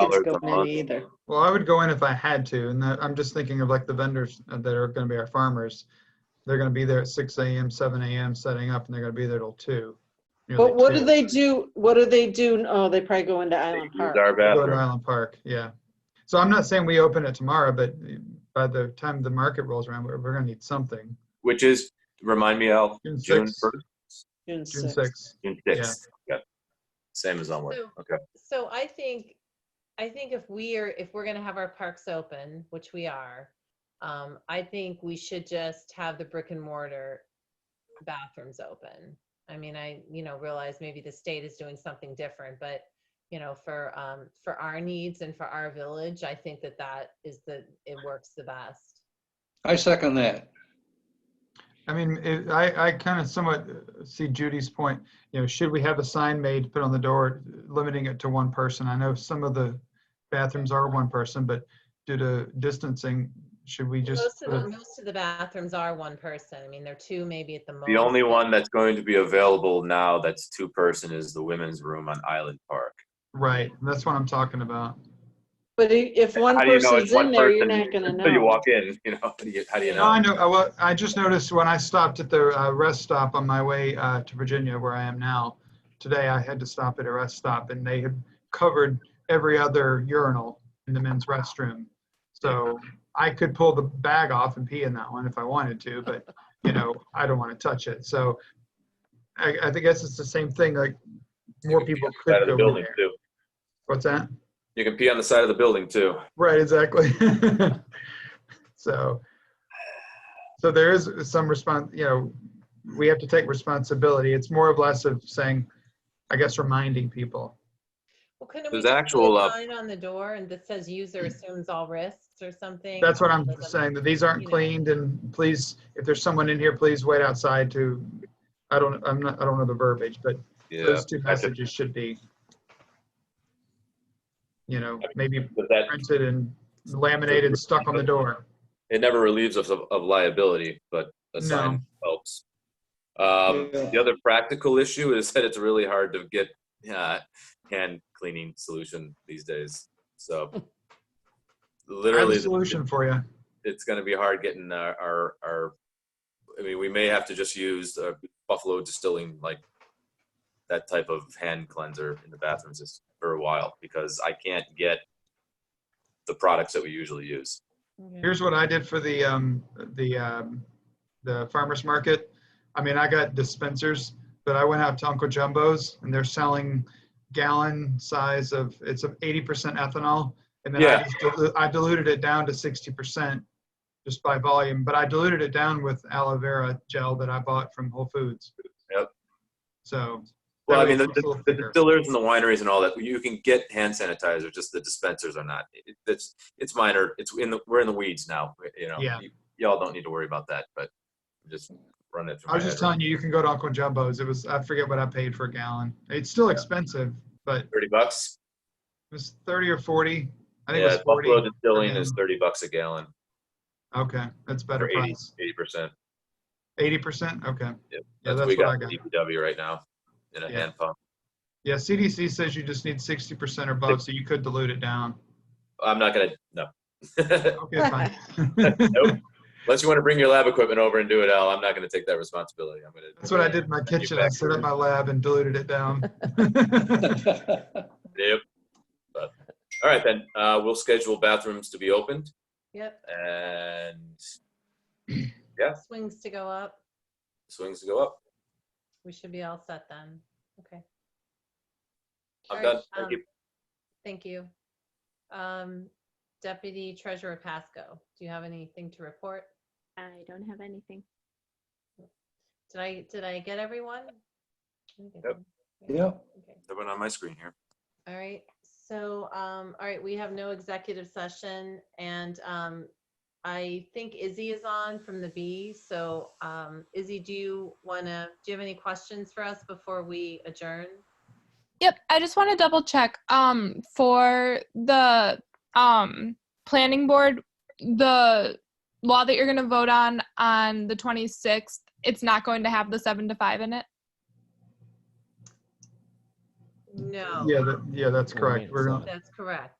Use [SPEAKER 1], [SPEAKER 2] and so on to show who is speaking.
[SPEAKER 1] dollars
[SPEAKER 2] go
[SPEAKER 1] a
[SPEAKER 2] in
[SPEAKER 1] month.
[SPEAKER 2] Either.
[SPEAKER 3] Well, I would go in if I had to, and that, I'm just thinking of like the vendors that are gonna be our farmers. They're gonna be there at six AM, seven AM setting up, and they're gonna be there till two. nearly
[SPEAKER 2] But what do
[SPEAKER 3] two.
[SPEAKER 2] they do, what do they do? Oh, they probably go into Island
[SPEAKER 1] Use
[SPEAKER 2] Park.
[SPEAKER 1] our
[SPEAKER 3] Go to
[SPEAKER 1] bathroom.
[SPEAKER 3] Island Park, yeah. So I'm not saying we open it tomorrow, but by the time the market rolls around, we're, we're gonna need something.
[SPEAKER 1] which is, remind me, Al,
[SPEAKER 3] June
[SPEAKER 1] June
[SPEAKER 3] sixth,
[SPEAKER 1] 1st,
[SPEAKER 2] June
[SPEAKER 3] June
[SPEAKER 2] 6th.
[SPEAKER 3] sixth.
[SPEAKER 1] June 6th. Yeah. Same as onward.
[SPEAKER 4] So-
[SPEAKER 1] Okay.
[SPEAKER 4] So I think, I think if we are, if we're gonna have our parks open, which we are, um, I think we should just have the brick and mortar bathrooms open. I mean, I, you know, realize maybe the state is doing something different, but, you know, for, um, for our needs and for our village, I think that that is the, it works the best.
[SPEAKER 5] I second that.
[SPEAKER 3] I mean, it, I, I kind of somewhat see Judy's point, you know, should we have a sign made, to put on the door, limiting it to one person? I know some of the bathrooms are one person, but due to distancing, should we just?
[SPEAKER 4] Most of
[SPEAKER 3] put a-
[SPEAKER 4] the, most of the bathrooms are one person. I mean, there are two maybe at the most.
[SPEAKER 1] The only one that's going to be available now that's two person is the women's room on Island Park.
[SPEAKER 3] Right, that's what I'm talking about.
[SPEAKER 2] But i- if one
[SPEAKER 1] How do you know it's
[SPEAKER 2] person's in
[SPEAKER 1] one
[SPEAKER 2] there, you're
[SPEAKER 1] person?
[SPEAKER 2] not gonna
[SPEAKER 1] Until you
[SPEAKER 2] know.
[SPEAKER 1] walk in, you know, how do you, how do you
[SPEAKER 4] No,
[SPEAKER 3] No, I
[SPEAKER 1] know?
[SPEAKER 3] know, I, wa- I just noticed when I stopped at the uh, rest stop on my way uh, to Virginia, where I am now, today I had to stop at a rest stop and they had covered every other urinal in the men's restroom. So I could pull the bag off and pee in that one if I wanted to, but, you know, I don't want to touch it. So I, I guess it's the same thing, like more people
[SPEAKER 1] Side
[SPEAKER 3] could
[SPEAKER 1] of the
[SPEAKER 3] go in
[SPEAKER 1] building
[SPEAKER 3] there.
[SPEAKER 1] too.
[SPEAKER 3] What's that?
[SPEAKER 1] You can pee on the side of the building too.
[SPEAKER 3] Right, exactly. so, so there is some response, you know, we have to take responsibility. It's more of less of saying, I guess, reminding people.
[SPEAKER 4] Well, couldn't we
[SPEAKER 1] There's
[SPEAKER 4] just put a
[SPEAKER 1] actual, uh, Mm.
[SPEAKER 4] Sign on the door and that says user assumes all risks or something.
[SPEAKER 3] That's what
[SPEAKER 4] or
[SPEAKER 3] I'm
[SPEAKER 4] doesn't-
[SPEAKER 3] saying, that these aren't cleaned and please, if there's someone in here, please wait outside to, I don't, I'm not, I don't know the verbiage, but
[SPEAKER 1] Yeah.
[SPEAKER 3] those two
[SPEAKER 1] I think-
[SPEAKER 3] messages should be, you know, maybe
[SPEAKER 1] But that,
[SPEAKER 3] printed and laminated, stuck on the door.
[SPEAKER 1] it never relieves us of, of liability, but a
[SPEAKER 3] No.
[SPEAKER 1] sign helps. Um,
[SPEAKER 5] Yeah.
[SPEAKER 1] the other practical issue is that it's really hard to get uh, hand cleaning solution these days. So
[SPEAKER 3] I have
[SPEAKER 1] literally,
[SPEAKER 3] a solution for you.
[SPEAKER 1] it's going to be hard getting our, our, our, I mean, we may have to just use uh, Buffalo distilling, like that type of hand cleanser in the bathrooms just for a while because I can't get the products that we usually use.
[SPEAKER 4] Yeah.
[SPEAKER 3] Here's what I did for the, um, the, um, the farmer's market. I mean, I got dispensers, but I went out to Uncle Jumbo's and they're selling gallon size of, it's of eighty percent ethanol. And then I
[SPEAKER 1] Yeah.
[SPEAKER 3] just, dilu- I diluted it down to sixty percent just by volume, but I diluted it down with aloe vera gel that I bought from Whole Foods.
[SPEAKER 1] Yep.
[SPEAKER 3] So.
[SPEAKER 1] Well, I
[SPEAKER 3] that
[SPEAKER 1] mean,
[SPEAKER 3] way
[SPEAKER 1] the,
[SPEAKER 3] it's a little
[SPEAKER 1] the, the
[SPEAKER 3] thicker.
[SPEAKER 1] distillers and the wineries and all that, you can get hand sanitizer, just the dispensers are not. It- It's, it's minor. It's in the, we're in the weeds now, you know.
[SPEAKER 3] Yeah.
[SPEAKER 1] You- Y'all don't need to worry about that, but just run it through
[SPEAKER 3] I
[SPEAKER 1] my
[SPEAKER 3] was
[SPEAKER 1] head.
[SPEAKER 3] just telling you, you can go to Uncle Jumbo's. It was, I forget what I paid for a gallon. It's still expensive, but it
[SPEAKER 1] Thirty bucks?
[SPEAKER 3] was thirty or forty. I think
[SPEAKER 1] Yeah,
[SPEAKER 3] it was forty.
[SPEAKER 1] Buffalo Distilling is
[SPEAKER 3] them.
[SPEAKER 1] thirty bucks a gallon,
[SPEAKER 3] Okay, that's better
[SPEAKER 1] or eighty,
[SPEAKER 3] price.
[SPEAKER 1] eighty percent.
[SPEAKER 3] Eighty percent, okay.
[SPEAKER 1] Yep,
[SPEAKER 3] Yeah,
[SPEAKER 1] That's what we
[SPEAKER 3] that's what I
[SPEAKER 1] got
[SPEAKER 3] got.
[SPEAKER 1] in DPW right now, in a
[SPEAKER 3] Yeah.
[SPEAKER 1] hand pump.
[SPEAKER 3] Yeah, CDC says you just need sixty percent or above, so you could dilute it down.
[SPEAKER 1] I'm not gonna, no.
[SPEAKER 3] Okay, fine.
[SPEAKER 1] Unless you wanna bring your lab equipment over and do it, Al, I'm not gonna take that responsibility. I'm gonna.
[SPEAKER 3] That's what I did in my kitchen. I set up my lab and diluted it down.
[SPEAKER 1] Yep. But, all right then, uh, we'll schedule bathrooms to be opened
[SPEAKER 4] Yep,
[SPEAKER 1] and
[SPEAKER 4] swings to go up.
[SPEAKER 1] swings to go up.
[SPEAKER 4] We should be all set then. Okay,
[SPEAKER 1] I'm
[SPEAKER 4] All
[SPEAKER 1] done.
[SPEAKER 4] right,
[SPEAKER 1] Thank
[SPEAKER 4] um,
[SPEAKER 1] you.
[SPEAKER 4] thank you. Um, Deputy Treasurer Pasco, do you have anything to report?
[SPEAKER 6] I don't have anything.
[SPEAKER 4] Did I, did I get everyone? I think I
[SPEAKER 1] Yep.
[SPEAKER 4] did.
[SPEAKER 5] Yeah.
[SPEAKER 4] Okay.
[SPEAKER 1] Everyone on my screen here.
[SPEAKER 4] All right, so, um, all right, we have no executive session and, um, I think Izzy is on from the B, so, um, Izzy, do you wanna, do you have any questions for us before we adjourn?
[SPEAKER 7] Yep, I just want to double check. Um, for the um planning board, the law that you're gonna vote on on the 26th, it's not going to have the seven to five in it.
[SPEAKER 4] No,
[SPEAKER 3] Yeah, that, yeah, that's correct. We're, gonna-
[SPEAKER 4] that's correct.